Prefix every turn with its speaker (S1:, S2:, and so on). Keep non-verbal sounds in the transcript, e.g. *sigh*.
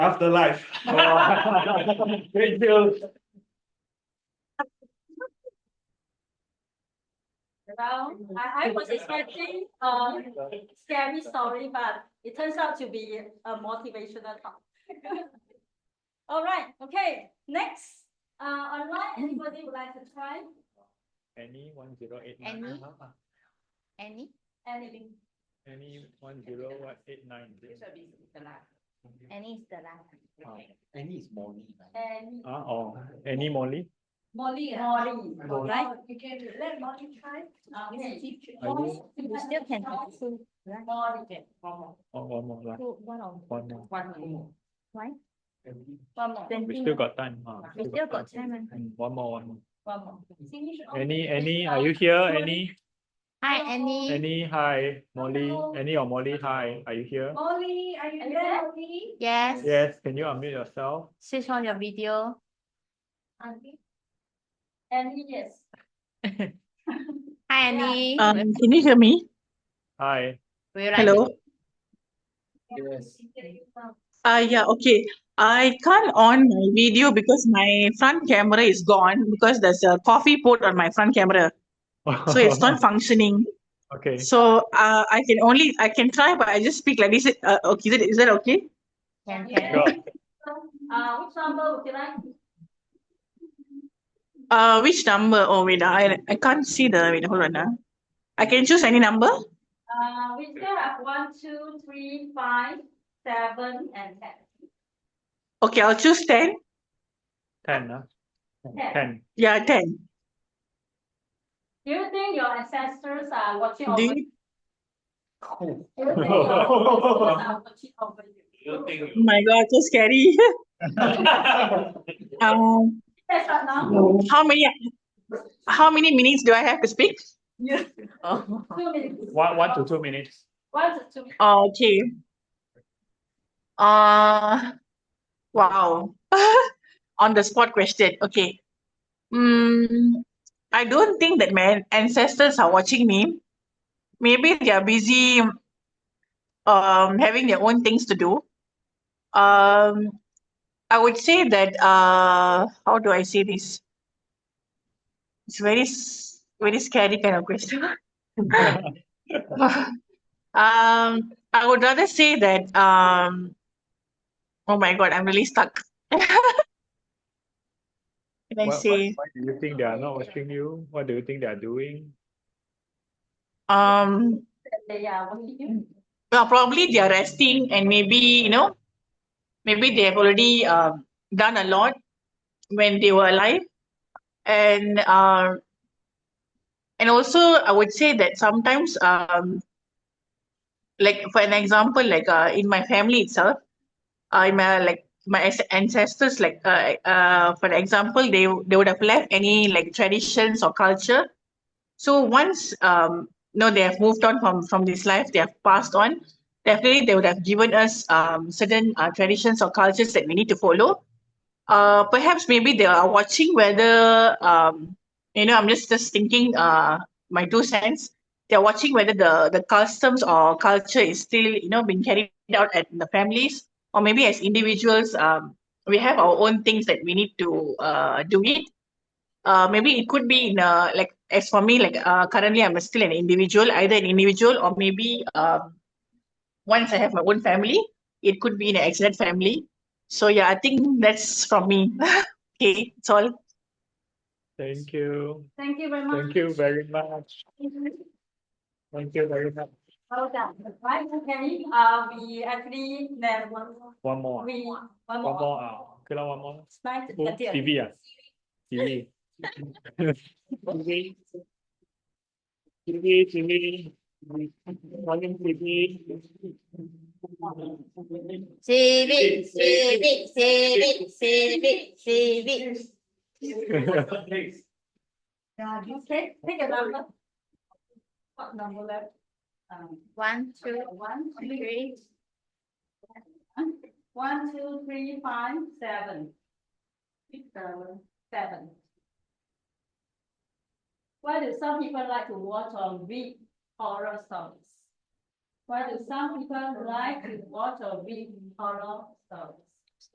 S1: Afterlife. Oh, *laughs* Thank you.
S2: Well, I, I was expecting, um, scary story, but it turns out to be a motivational talk. *laughs* All right, okay, next, uh, online, anybody would like to try
S1: Any one zero eight
S3: Any?
S1: nine. Uh-huh. Uh,
S3: Any?
S2: anything?
S1: Any one zero one eight nine.
S3: Any is the last.
S1: Wow.
S4: Any is morning, right?
S2: And
S1: Ah, oh, any Molly?
S2: Molly, Molly,
S1: Molly.
S2: right? You can let Molly try.
S1: I
S2: Okay.
S1: do.
S3: You still can have two, right?
S2: Molly.
S1: Oh, one more, lah.
S3: Two, one or
S1: one more.
S3: one more. Right?
S2: One more.
S3: Twenty.
S1: We still got time. ah,
S3: We still got
S1: time.
S3: time.
S1: Mm, One more, one more.
S2: One more.
S1: Any, any,
S2: Uh,
S1: are you here? Any,
S3: Hi, Annie.
S1: any, hi, Molly, any or Molly, hi, are you here?
S2: Molly, are you there, Molly?
S3: Oh, Yes,
S1: Yes, can you unmute yourself?
S3: switch on your video.
S2: Annie, yes.
S3: Hi, Annie.
S5: Um, can you hear me?
S1: Hi,
S3: Would you like
S5: Hello?
S3: to-
S4: Yes.
S5: Uh, yeah, okay. I can't on my video because my front camera is gone because there's a coffee pot on my front camera. So it's not functioning.
S1: *laughs* okay,
S5: So uh, I can only, I can try, but I just speak like this. Uh, okay, is that, is that okay?
S3: Can,
S2: Yeah.
S3: can.
S1: go,
S2: Uh, which number would you like?
S5: Uh, which number? Oh, wait, I, I can't see the, wait, hold on. ah. I can choose any number?
S2: Uh, we still have one, two, three, five, seven, and ten.
S5: Okay, I'll choose 10.
S1: ten, ah,
S2: Ten.
S1: ten.
S5: Yeah, 10.
S2: Do you think your ancestors are watching over
S5: Do
S2: you?
S1: *laughs*
S5: you,
S2: Do you think your
S1: Oh.
S3: *laughs*
S2: ancestors are watching over you?
S5: oh my God, so scary.
S1: *laughs*
S5: *laughs* Um,
S2: That's right now,
S5: how many, how many minutes do I have to speak?
S2: two minutes.
S1: One, one to two minutes.
S2: One to two. minutes.
S5: Okay. Uh, wow. *laughs* On the spot question. Okay. Mm, I don't think that my ancestors are watching me. Maybe they are busy um, having their own things to do. Um, I would say that, uh, how do I say this? It's very, s- very scary kind of question. *laughs* Um, I would rather say that, um, oh my God, I'm really stuck. *laughs* Can
S1: What-
S5: I
S1: what-
S5: say,
S1: Why do you think they are not watching you? What do you think they are doing?
S5: um,
S2: They are watching you.
S5: well, probably they are resting and maybe, you know, maybe they have already um, done a lot when they were alive. And um, and also I would say that sometimes um, like for an example, like uh, in my family itself, uh, in my like my as- ancestors, like uh, uh, for example, they they would have left any like traditions or culture. So once um, no, they have moved on from from this life, they have passed on. Definitely, they would have given us um, certain uh, traditions or cultures that we need to follow. Uh, perhaps maybe they are watching whether um, you know. I'm just just thinking uh, my two cents. They are watching whether the the customs or culture is still you know being carried out at the families or maybe as individuals. Um, we have our own things that we need to uh, do it uh, maybe it could be in a, like as for me like uh, currently i'm still an individual either an individual or maybe um, once i have my own family it could be in an extended family so yeah i think that's from me okay it's all
S1: Thank you,
S2: Thank you very much.
S1: thank you very much, thank you very much.
S2: Well done. Right, okay, uh, we actually, there one,
S1: One more, ah.
S2: we, one
S1: one
S2: more.
S1: more, ah. okay lah, one more.
S2: Slide
S1: Who?
S2: until-
S1: TV ah? TV. TV. TV, TV. Morning TV.
S3: Civic, civic, civic, civic,
S1: *laughs*
S3: civic.
S2: Yeah, okay, take a number. What number left? Um,
S3: One, two,
S2: one, two,
S3: three.
S2: One, two, three, five, seven. Pick the seven. Why do some people like to watch or read horror stories? Why do some people like to watch or read horror stories?